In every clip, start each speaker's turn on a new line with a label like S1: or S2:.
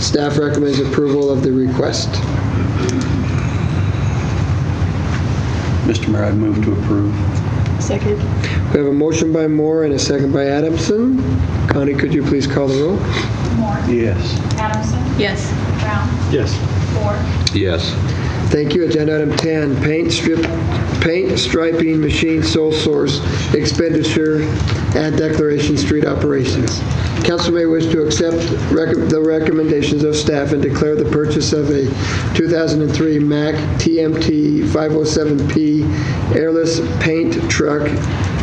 S1: Staff recommends approval of the request.
S2: Mr. Mayor, I move to approve.
S3: Second.
S1: We have a motion by Moore and a second by Adamson. Connie, could you please call the roll?
S4: Moore.
S2: Yes.
S4: Adamson.
S3: Yes.
S4: Brown.
S2: Yes.
S4: Ford.
S5: Yes.
S1: Thank you. Agenda item 10, paint strip, paint striping machine sole source expenditure and declaration street operations. Council may wish to accept rec- the recommendations of staff and declare the purchase of a 2003 Mack TMT 507P airless paint truck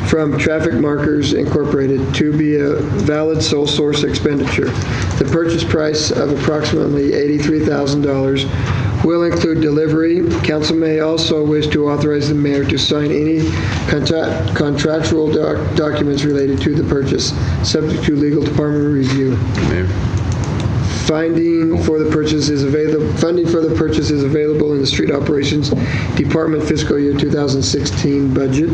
S1: from Traffic Markers Incorporated to be a valid sole source expenditure. The purchase price of approximately $83,000 will include delivery. Council may also wish to authorize the mayor to sign any contra- contractual doc- documents related to the purchase, subject to legal department review.
S5: Mayor.
S1: Finding for the purchase is available, funding for the purchase is available in the Street Operations Department fiscal year 2016 budget.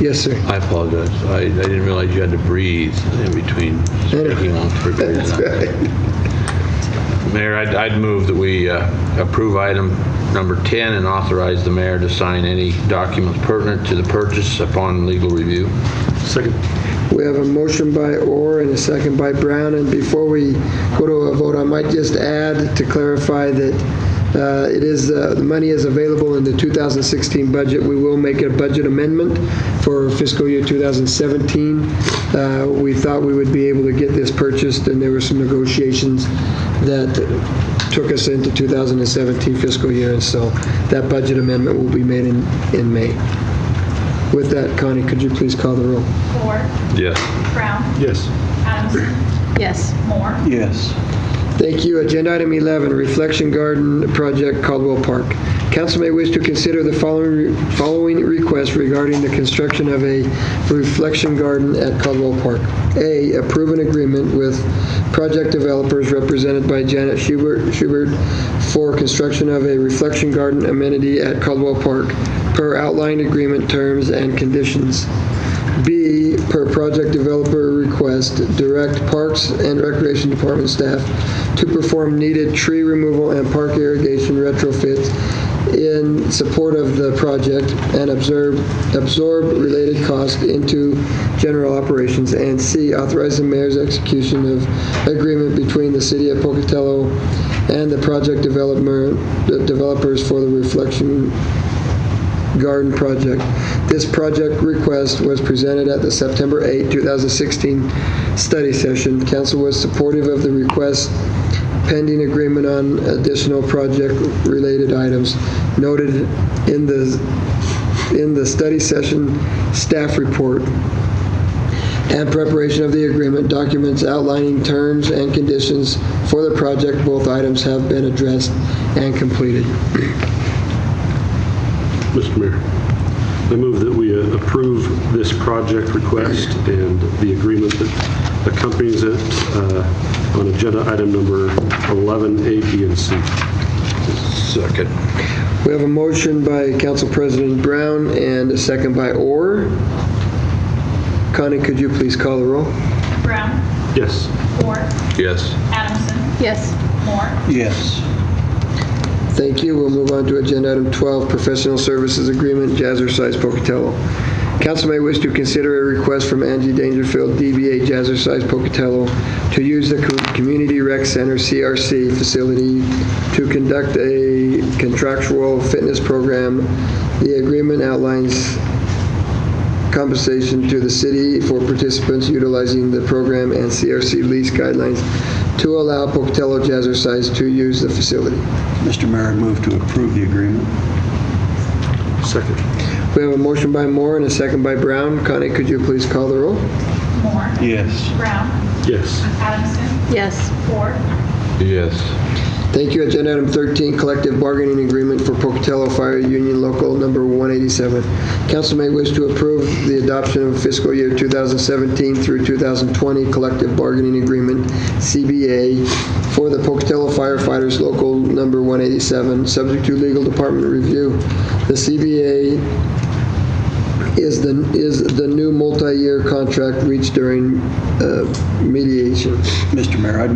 S1: Yes, sir.
S5: I apologize. I, I didn't realize you had to breathe in between speaking on for a period of time. Mayor, I'd, I'd move that we uh, approve item number 10 and authorize the mayor to sign any documents pertinent to the purchase upon legal review.
S2: Second.
S1: We have a motion by Orr and a second by Brown, and before we go to a vote, I might just add to clarify that uh, it is, uh, the money is available in the 2016 budget. We will make a budget amendment for fiscal year 2017. Uh, We thought we would be able to get this purchased, and there were some negotiations that took us into 2017 fiscal year, and so that budget amendment will be made in, in May. With that, Connie, could you please call the roll?
S4: Ford.
S5: Yes.
S4: Brown.
S2: Yes.
S4: Adamson.
S3: Yes.
S4: Moore.
S2: Yes.
S1: Thank you. Agenda item 11, Reflection Garden Project Caldwell Park. Council may wish to consider the following following requests regarding the construction of a reflection garden at Caldwell Park. A, approve an agreement with project developers represented by Janet Schubert Schubert for construction of a reflection garden amenity at Caldwell Park per outlined agreement terms and conditions. B, per project developer request, direct Parks and Recreation Department staff to perform needed tree removal and park irrigation retrofits in support of the project and observe, absorb related costs into general operations. And C, authorize the mayor's execution of agreement between the city of Pocatello and the project developer, developers for the reflection Garden Project. This project request was presented at the September 8, 2016 study session. Council was supportive of the request pending agreement on additional project-related items noted in the, in the study session staff report and preparation of the agreement, documents outlining terms and conditions for the project. Both items have been addressed and completed.
S6: Mr. Mayor, I move that we uh, approve this project request and the agreement that accompanies it uh, on agenda item number 11A, B, and C.
S5: Second.
S1: We have a motion by Council President Brown and a second by Orr. Connie, could you please call the roll?
S4: Brown.
S6: Yes.
S4: Ford.
S5: Yes.
S4: Adamson.
S3: Yes.
S4: Moore.
S2: Yes.
S1: Thank you. We'll move on to Agenda Item 12, Professional Services Agreement, Jazzercise Pocatello. Council may wish to consider a request from Angie Dangerfield, DBA Jazzercise Pocatello, to use the Co- Community Rec Center CRC facility to conduct a contractual fitness program. The agreement outlines compensation to the city for participants utilizing the program and CRC lease guidelines to allow Pocatello Jazzercise to use the facility.
S2: Mr. Mayor, I move to approve the agreement.
S6: Second.
S1: We have a motion by Moore and a second by Brown. Connie, could you please call the roll?
S4: Moore.
S2: Yes.
S4: Brown.
S6: Yes.
S4: Adamson.
S3: Yes.
S4: Ford.
S5: Yes.
S1: Thank you. Agenda item 13, collective bargaining agreement for Pocatello Fire Union Local Number 187. Council may wish to approve the adoption of fiscal year 2017 through 2020 collective bargaining agreement, CBA, for the Pocatello firefighters Local Number 187, subject to legal department review. The CBA is the, is the new multi-year contract reached during uh, mediation.
S2: Mr. Mayor, I